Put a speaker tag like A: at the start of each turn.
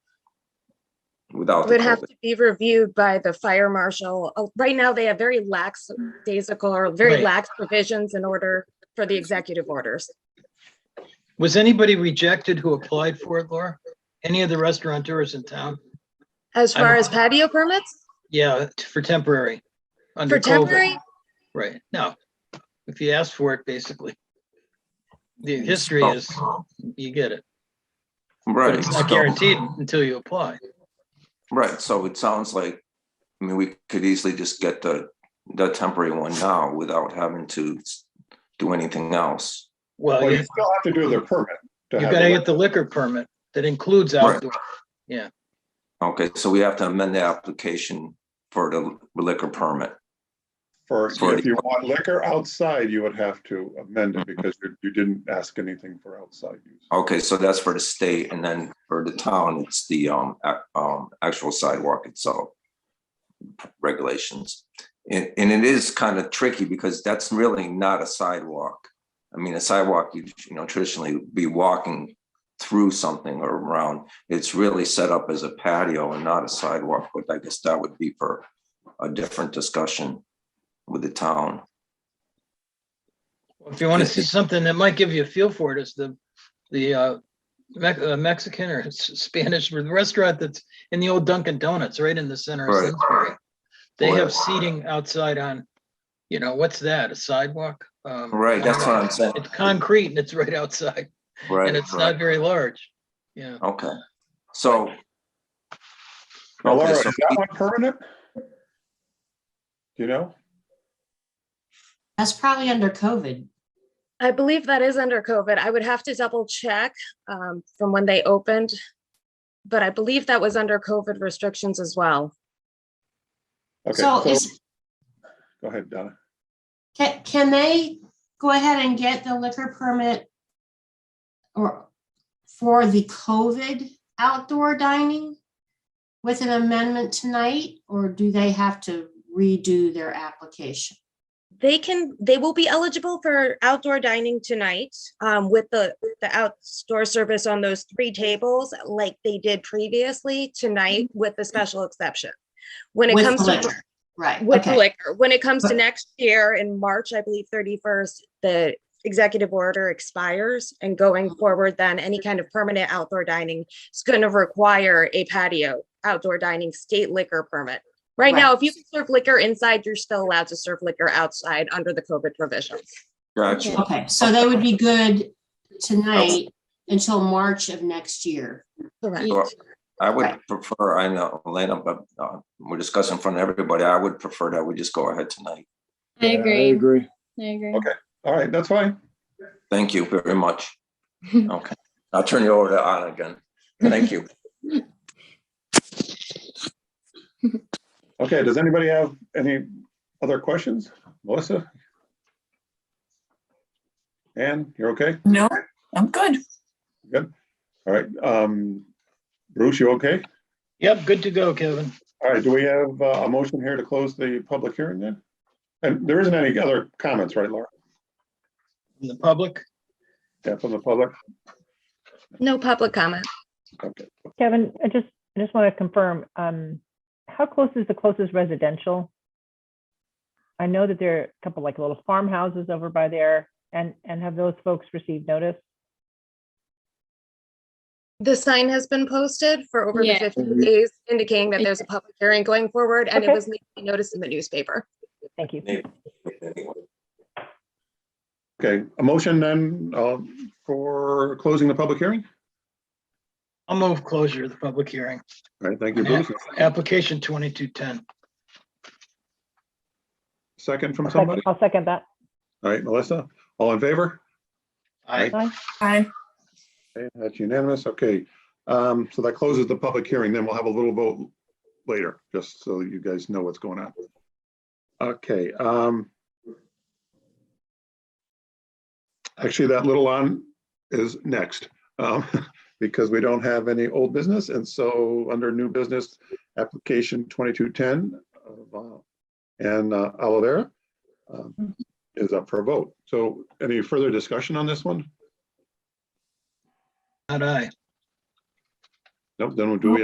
A: without. the
B: Would have
A: COVID.
B: to be reviewed by the fire marshal. Uh, Right now, they have very lax, daisical or very
C: Right.
B: lax provisions in order for the executive orders.
C: Was anybody rejected who applied for it, Laura? Any of the restaurateurs in town?
B: As
C: I
B: far
C: don't-
B: as patio permits
C: Yeah, t- for temporary. under
B: for
C: COVID.
B: temporary,
C: Right, no. If you ask for it, basically. The history
A: Oh.
C: is, you get it. But
A: Right.
C: it's not
A: so-
C: guaranteed until you apply.
A: Right, so it sounds like, I mean, we could easily just get the, the temporary one now without having to s- do anything else.
C: Well,
D: Well,
C: you-
D: you still have to do the permit. to
C: you
D: have
C: gotta
D: the-
C: get the liquor permit that includes
A: Right.
C: outdoor.
A: Okay, so we have to amend the application for the liquor permit.
D: For,
A: Sorry.
D: if you want liquor outside, you would have to amend it because you, you didn't ask anything for outside use.
A: Okay, so that's for the state and then for the town, it's the um, ac- um, actual sidewalk itself. Regulations. And, and it is kind of tricky because that's really not a sidewalk. I mean, a sidewalk, you, you know, traditionally would be walking through something or around. It's really set up as a patio and not a sidewalk, but I guess that would be for a different discussion with the town.
C: If you want to see something that might give you a feel for it, is the, the uh, Mex- uh, Mexican or S- Spanish restaurant that's in the old Dunkin' Donuts, right in the center of
A: Right.
C: Simsbury. They have
A: Right.
C: seating outside on, you know, what's that, a sidewalk? Um,
A: Right, that's what I'm saying.
C: It's concrete and it's right outside
A: Right.
C: and it's
A: right.
C: not very large. Yeah,
A: Okay, so.
D: Now, Laura,
A: Okay,
D: is
A: so
D: that one permanent? You know,
E: That's probably under COVID.
B: I believe that is under COVID. I would have to double check um, from when they opened. But I believe that was under COVID restrictions as well.
D: okay,
E: So
D: so,
E: is,
D: go ahead, Donna.
E: can, can they go ahead and get the liquor permit? Or for the COVID outdoor dining? With an amendment tonight, or do they have to redo their application?
B: They can, they will be eligible for outdoor dining tonight um, with the, the outdoor service on those three tables like they did previously tonight with the special exception. When it
E: With
B: comes to.
E: liquor, Right,
B: with
E: okay,
B: liquor. When it comes to
E: But-
B: next year in March, I believe thirty-first, the executive order expires and going forward, then any kind of permanent outdoor dining is going to require a patio outdoor dining state liquor permit. Right now, if you can serve liquor inside, you're still allowed to serve liquor outside under the COVID provisions.
A: Gotcha,
E: okay, so they would be good tonight until March of next year.
B: Correct.
A: So I would
E: Right.
A: prefer, I know, Elena, but uh, we're discussing in front of everybody, I would prefer that we just go ahead tonight.
F: I
D: Yeah, I
F: agree. I agree.
D: Okay. All right, that's fine.
A: Thank you very much. Okay, I'll turn you over to Anna again, thank you.
D: Okay, does anybody have any other questions? Melissa? Ann, you're okay?
G: No, I'm good.
D: Good? All right, um, Bruce, you okay?
C: yep, good to go, Kevin.
D: All right, do we have uh, a motion here to close the public hearing then? And there isn't any other comments, right, Laura?
C: From The public,
D: Yeah, from the public?
B: No public comment.
D: Okay.
H: Kevin, I just, I just want to confirm, um, how close is the closest residential? I know that there are a couple like little farmhouses over by there and, and have those folks received notice?
B: The sign has been posted for over the
F: Yeah.
B: fifteen days indicating that there's a public hearing going forward and it
H: Okay.
B: was noticed in the newspaper.
H: Thank you.
D: Okay, a motion then um, for closing the public hearing?
C: I'll move closure of the public hearing.
D: All right, thank you, Bruce.
C: Application 2210.
D: Second from
H: I'll sec-
D: somebody?
H: I'll second that.
D: All right, Melissa, all in favor?
C: I,
H: Aye.
G: Hi.
D: Okay, That's unanimous, okay. Um, So that closes the public hearing, then we'll have a little vote later, just so you guys know what's going on. Okay. um, Actually, that little on is next, um, because we don't have any old business, and so under new business, application 2210 of, uh, and uh, Olivera um, is up for a vote. So any further discussion on this one?
C: not I.
D: Nope, then we'll do we